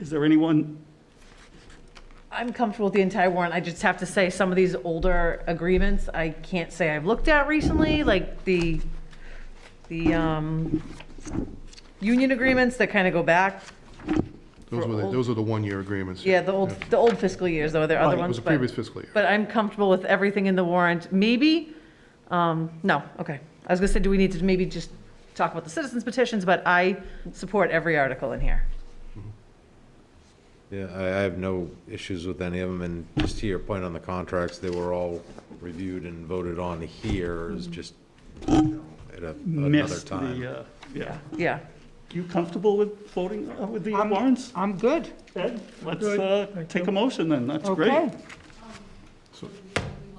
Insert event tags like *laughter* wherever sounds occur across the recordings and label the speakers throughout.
Speaker 1: Is there anyone,
Speaker 2: I'm comfortable with the entire warrant. I just have to say, some of these older agreements, I can't say I've looked at recently, like the, the, um, union agreements that kind of go back.
Speaker 3: Those were, the-
Speaker 2: old-
Speaker 3: those are the one-year agreements.
Speaker 2: Yeah, the old, the old fiscal years, though, there are
Speaker 3: Right,
Speaker 2: other
Speaker 3: It
Speaker 2: ones,
Speaker 3: was the previous
Speaker 2: but,
Speaker 3: fiscal year.
Speaker 2: but I'm comfortable with everything in the warrant, maybe, um, no, okay. I was gonna say, do we need to maybe just talk about the citizens petitions, but I support every article in here.
Speaker 4: Yeah, I, I have no issues with any of them, and just to your point on the contracts, they were all reviewed and voted on here, is just at a- another
Speaker 1: Mm-hmm. missed
Speaker 4: time.
Speaker 1: the, uh, yeah.
Speaker 2: Yeah,
Speaker 1: You comfortable with voting uh, with the
Speaker 5: I'm-
Speaker 1: warrants?
Speaker 5: I'm good.
Speaker 1: Ed, let's uh, take a motion then, that's
Speaker 5: Okay.
Speaker 1: great.
Speaker 6: We look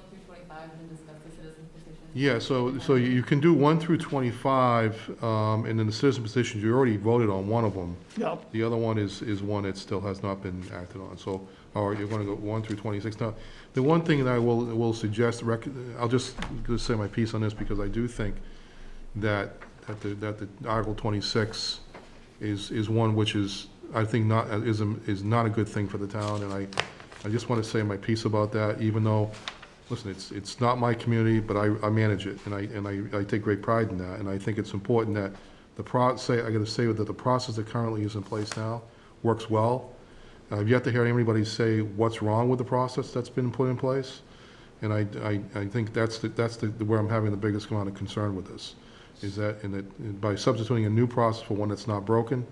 Speaker 6: through 25 and discuss the citizen petition.
Speaker 3: Yeah, so, so you you can do one through 25, um, and then the citizen petitions, you already voted on one of them.
Speaker 1: Yeah,
Speaker 3: The other one is, is one that still has not been acted on, so, all right, you're gonna go one through twenty-six. Now, the one thing that I will, will suggest, rec- I'll just, just say my piece on this, because I do think that, that the, that the Article twenty-six is, is one which is, I think not, is, a- is not a good thing for the town, and I, I just wanna say my piece about that, even though, listen, it's, it's not my community, but I, I manage it, and I, and I, I take great pride in that, and I think it's important that the pro, say, I gotta say that the process that currently is in place now works well. I've yet to hear anybody say what's wrong with the process that's been put in place. And I, I, I think that's, the- that's the, where I'm having the biggest amount of concern with this, is that, and that, by substituting a new process for one that's not broken,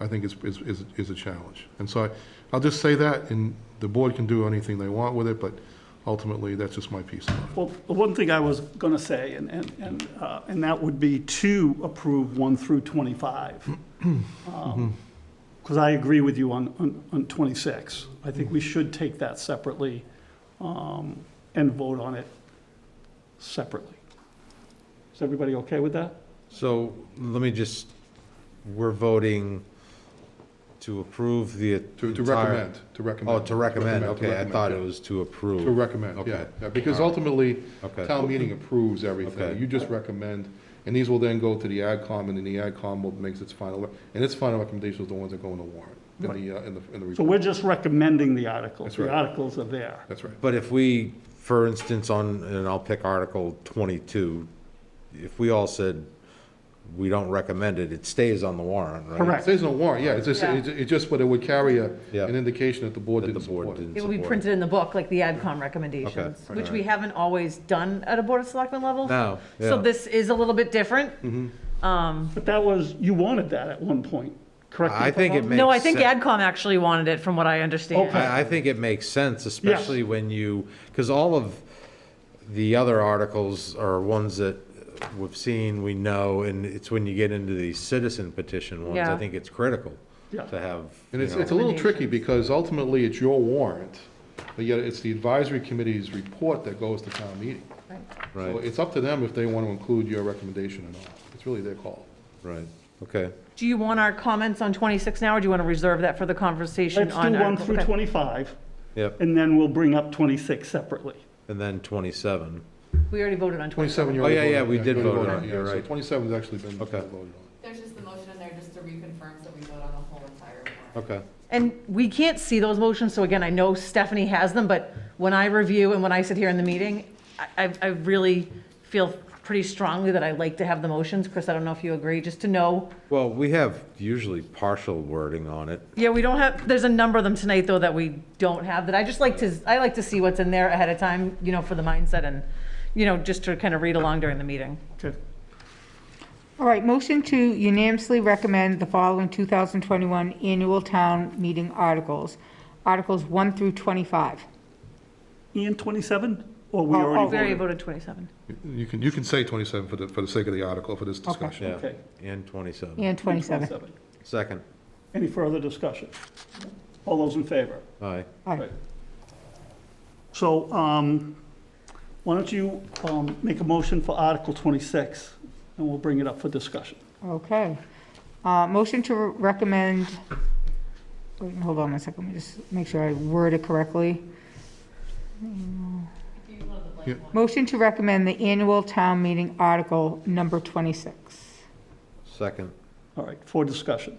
Speaker 3: I think is, is, is, is a challenge. And so I, I'll just say that, and the board can do anything they want with it, but ultimately, that's just my piece on it.
Speaker 1: well, the one thing I was gonna say, and, and, and, uh, and that would be to approve one through
Speaker 4: *clears throat*
Speaker 1: twenty-five.
Speaker 4: Mm-hmm.
Speaker 1: Because I agree with you on, on, on twenty-six. I think
Speaker 4: Mm-hmm.
Speaker 1: we should take that separately, um, and vote on it separately. Is everybody okay with that?
Speaker 4: So, let me just, we're voting to approve the
Speaker 3: To, to
Speaker 4: entire-
Speaker 3: recommend, to recommend.
Speaker 4: Oh, to recommend,
Speaker 3: to
Speaker 4: okay, I
Speaker 3: recommend,
Speaker 4: thought
Speaker 3: yeah.
Speaker 4: it was to approve.
Speaker 3: To recommend, yeah,
Speaker 4: Okay.
Speaker 3: Yeah, because ultimately,
Speaker 4: Okay.
Speaker 3: town meeting approves everything,
Speaker 4: Okay.
Speaker 3: you just recommend, and these will then go to the AdCom, and then the AdCom will makes its final, and its final recommendations are the ones that go in the warrant, in the, uh, in the, in the
Speaker 1: So we're
Speaker 3: report.
Speaker 1: just recommending the articles.
Speaker 3: That's
Speaker 1: The
Speaker 3: right.
Speaker 1: articles are there.
Speaker 3: That's right,
Speaker 4: But if we, for instance, on, and I'll pick Article 22, if we all said, we don't recommend it, it stays on the warrant, right?
Speaker 1: Correct.
Speaker 3: it says no warrant, yeah, it's just,
Speaker 2: Yeah.
Speaker 3: it's it's just, but it would carry a,
Speaker 4: Yeah.
Speaker 3: an indication that the board
Speaker 4: That the
Speaker 3: didn't
Speaker 4: board
Speaker 3: support it.
Speaker 4: didn't
Speaker 2: It will be
Speaker 4: support.
Speaker 2: printed in the book, like the AdCom recommendations,
Speaker 4: Okay.
Speaker 2: which we haven't always done at a Board of Selectmen level.
Speaker 4: No,
Speaker 2: So
Speaker 4: yeah. Mm-hmm.
Speaker 2: this is a little bit different. Um,
Speaker 1: But that was, you wanted that at one point, correct? me
Speaker 4: I
Speaker 1: if I'm
Speaker 4: think it
Speaker 1: wrong?
Speaker 4: makes.
Speaker 2: No, I think
Speaker 4: sen-
Speaker 2: AdCom actually wanted it, from what I understand.
Speaker 1: Okay.
Speaker 4: I, I think it makes sense, especially when you, because all of the other articles are ones that we've seen, we know, and it's when you get into the citizen petition ones,
Speaker 2: Yeah.
Speaker 4: I think it's critical
Speaker 1: Yeah.
Speaker 4: to have.
Speaker 3: And
Speaker 4: you
Speaker 3: it's,
Speaker 4: know-
Speaker 3: it's a little tricky,
Speaker 2: Recommendations.
Speaker 3: because ultimately, it's your warrant, but yet it's the advisory committee's report that goes to town meeting. So
Speaker 4: Right,
Speaker 3: it's up to them if they want to include your recommendation or not, it's really their call.
Speaker 4: right, okay.
Speaker 2: Do you want our comments on 26 now, or do you want to reserve that for the conversation
Speaker 1: Let's
Speaker 2: on?
Speaker 1: do one
Speaker 2: Article-
Speaker 1: through
Speaker 2: okay.
Speaker 1: 25,
Speaker 4: Yep,
Speaker 1: and then we'll bring up 26 separately.
Speaker 4: and then twenty-seven.
Speaker 2: We already voted on 26.
Speaker 3: 27, you
Speaker 4: Oh,
Speaker 3: already
Speaker 4: yeah,
Speaker 3: voted
Speaker 4: yeah,
Speaker 3: on-
Speaker 4: we did
Speaker 3: you already
Speaker 4: vote
Speaker 3: voted
Speaker 4: on it,
Speaker 3: yeah,
Speaker 4: you're
Speaker 3: so
Speaker 4: right.
Speaker 3: 27 has actually been
Speaker 4: Okay.
Speaker 3: voted on.
Speaker 6: There's just the motion in there just to reconfirm, so we vote on the whole entire warrant.
Speaker 4: Okay,
Speaker 2: And we can't see those motions, so again, I know Stephanie has them, but when I review and when I sit here in the meeting, I, I- I really feel pretty strongly that I like to have the motions. Chris, I don't know if you agree, just to know
Speaker 4: well, we have usually partial wording on it.
Speaker 2: Yeah, we don't have, there's a number of them tonight, though, that we don't have, that I just like to, I like to see what's in there ahead of time, you know, for the mindset and, you know, just to kind of read along during the meeting.
Speaker 1: Okay.
Speaker 5: All right, motion to unanimously recommend the following 2021 annual town meeting articles. Articles 1 through 25.
Speaker 1: Ian, 27, or we
Speaker 5: Oh, oh.
Speaker 1: already
Speaker 2: We already
Speaker 1: voted?
Speaker 2: voted 27.
Speaker 3: You can, you can say 27 for the, for the sake of the article, for this discussion.
Speaker 4: Yeah,
Speaker 1: Okay.
Speaker 4: and twenty-seven.
Speaker 5: And 27.
Speaker 4: Second,
Speaker 1: Any further discussion? All those in favor?
Speaker 4: aye.
Speaker 5: All
Speaker 1: Right.
Speaker 5: right.
Speaker 1: So um, why don't you um, make a motion for Article 26, and we'll bring it up for discussion.
Speaker 5: Okay. Uh, Motion to recommend, wait, hold on a second, let me just make sure I word it correctly.
Speaker 6: If you want the
Speaker 3: Yeah.
Speaker 6: blank one.
Speaker 5: Motion to recommend the annual town meeting article number 26.
Speaker 4: Second,
Speaker 1: All right, for discussion.